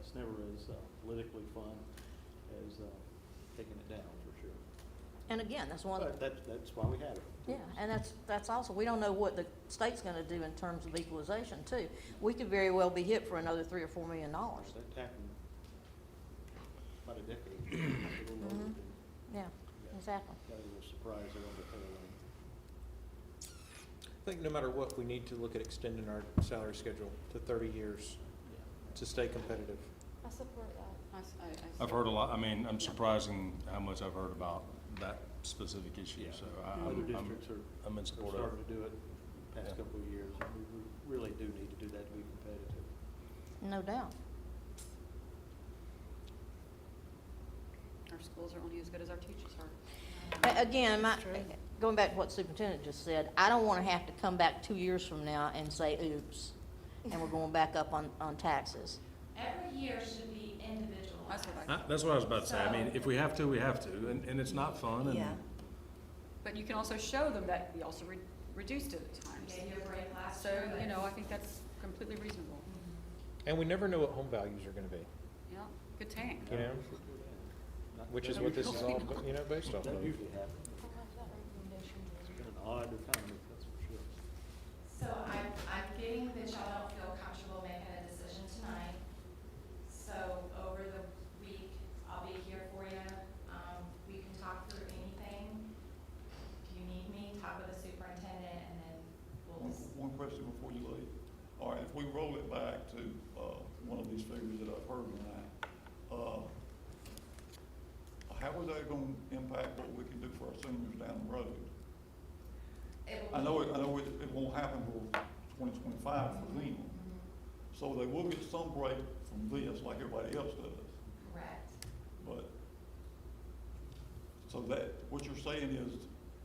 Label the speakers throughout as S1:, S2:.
S1: as uh, politically fun as uh, taking it down, for sure.
S2: And again, that's one of the
S1: But that's, that's why we have it.
S2: Yeah, and that's, that's also, we don't know what the state's gonna do in terms of equalization too. We could very well be hit for another three or four million dollars,
S1: That happened about a decade, ago, a little longer
S2: Mhm.
S1: than,
S2: yeah,
S1: yeah.
S2: exactly.
S1: Got a little surprise there on the tail end.
S3: I think no matter what, we need to look at extending our salary schedule to thirty years to stay competitive.
S4: I support that.
S5: I s- I- I
S6: I've
S5: see.
S6: heard a lot, I mean, I'm surprising how much I've heard about that specific issue,
S1: Yeah.
S6: so I-
S1: Other
S6: I'm, I'm,
S1: districts are
S6: I'm in
S1: are
S6: support of it.
S1: starting to do it the past
S6: Yeah.
S1: couple of years. and We we really do need to do that to be competitive.
S2: No doubt.
S5: Our schools are only as good as our teachers are.
S2: A- Again, my,
S5: That's true.
S2: going back to what Superintendent just said, I don't wanna have to come back two years from now and say, oops, and we're going back up on, on taxes.
S7: Every year should be individual.
S5: That's what I
S6: I- That's what I was about to say, I mean, if we have to, we have to, and, and it's not fun, and
S4: Yeah.
S5: But you can also show them that we also re- reduced it at times.
S7: Gave you a break last
S5: So,
S7: year. but-
S5: you know, I think that's completely reasonable.
S3: And we never know what home values are gonna be,
S5: Yeah, good tank.
S3: You know,
S1: We should do that. Not-
S3: which is
S1: that
S3: what this is
S1: usually-
S3: all, you know, based off
S1: That
S3: of.
S1: usually happens.
S4: I like that recommendation.
S1: It's been an odd economy, that's for sure.
S7: So I'm, I'm getting that y'all don't feel comfortable making a decision tonight. So over the week, I'll be here for you. Um, we can talk through anything. If you need me, talk with the superintendent and then we'll.
S8: One- One question before you leave. All right, if we roll it back to, uh, one of these figures that I've heard tonight, uh, how is that gonna impact what we can do for our seniors down the road?
S7: It will
S8: I
S7: be-
S8: know, it- I know it, it won't happen till twenty twenty-five for them,
S7: Mhm,
S8: so they will get some break from this, like everybody else does,
S7: Correct.
S8: but, so that, what you're saying is,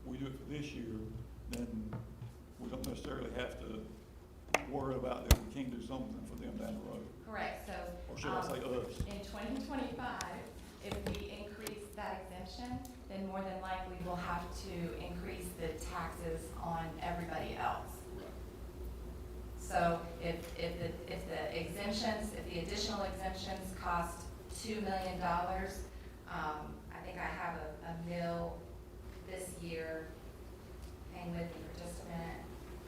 S8: we do it for this year, then we don't necessarily have to worry about that we can't do something for them down the road.
S7: Correct, so um,
S8: Or should I say us?
S7: In twenty twenty-five, if we increase that exemption, then more than likely we'll have to increase the taxes on everybody else. So if, if the, if the exemptions, if the additional exemptions cost two million dollars, um, I think I have a, a mill this year, hang with me for just a minute.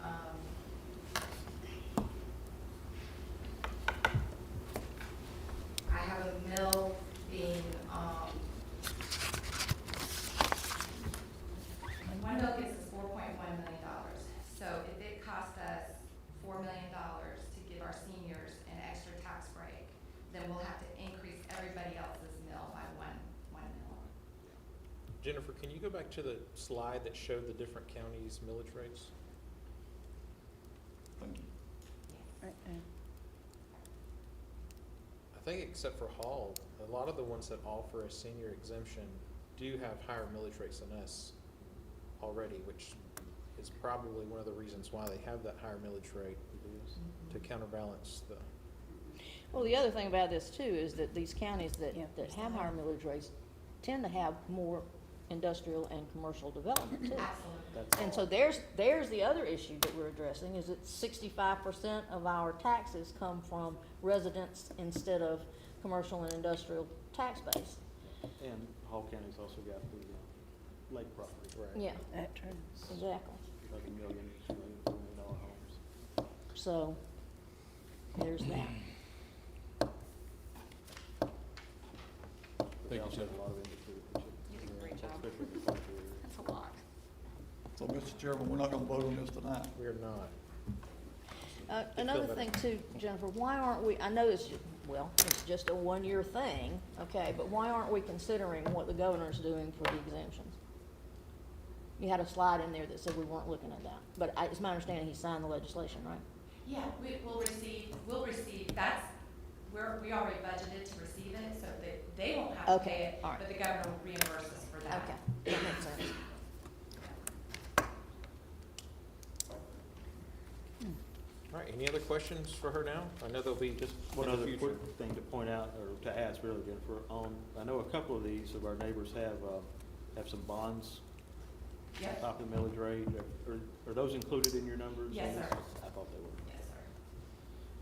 S7: Um, I have a mill being, um, one mill gets us four point one million dollars. So if it costs us four million dollars to give our seniors an extra tax break, then we'll have to increase everybody else's mill by one, one mill.
S3: Jennifer, can you go back to the slide that showed the different counties' millage rates?
S8: Thank you.
S3: I think except for Hall, a lot of the ones that offer a senior exemption do have higher millage rates than us already, which is probably one of the reasons why they have that higher millage rate
S1: It is.
S3: to counterbalance the
S2: Well, the other thing about this too is that these counties that,
S4: Yeah.
S2: that have higher millage rates tend to have more industrial and commercial development too.
S7: Absolutely.
S1: That's
S2: And
S1: all.
S2: so there's, there's the other issue that we're addressing, is that sixty-five percent of our taxes come from residents instead of commercial and industrial tax base.
S1: And Hall County's also got the uh, lake property,
S3: right.
S2: Yeah,
S4: That true.
S2: exactly.
S1: like a million, two million, three million dollar homes.
S2: So, there's that.
S1: But
S6: Thank
S1: they
S6: you,
S1: also have
S6: Jeff.
S1: a lot of industry. that
S5: You
S1: should-
S5: did a great job.
S1: Especially in the country area.
S5: That's a lot.
S8: So, Mr. Chairman, we're not gonna vote on this tonight.
S3: We are not.
S2: Uh, another thing too, Jennifer, why aren't we, I know it's, ju- well, it's just a one-year thing, okay, but why aren't we considering what the governor's doing for the exemptions? You had a slide in there that said we weren't looking at that, but I, it's my understanding he signed the legislation, right?
S7: Yeah, we, we'll receive, we'll receive, that's, we're, we already budgeted to receive it, so they, they won't have to
S2: Okay,
S7: pay it,
S2: all right.
S7: but the governor will reimburse us for that.
S2: Okay, that makes sense.
S3: All right, any other questions for her now? I know there'll be
S1: Just one
S3: in the
S1: other
S3: future.
S1: quick thing to point out, or to ask really, Jennifer, on, I know a couple of these of our neighbors have, uh, have some bonds
S7: Yep.
S1: Uh, top of the millage rate. Are, are those included in your numbers?
S7: Yes, sir.
S1: I thought they were.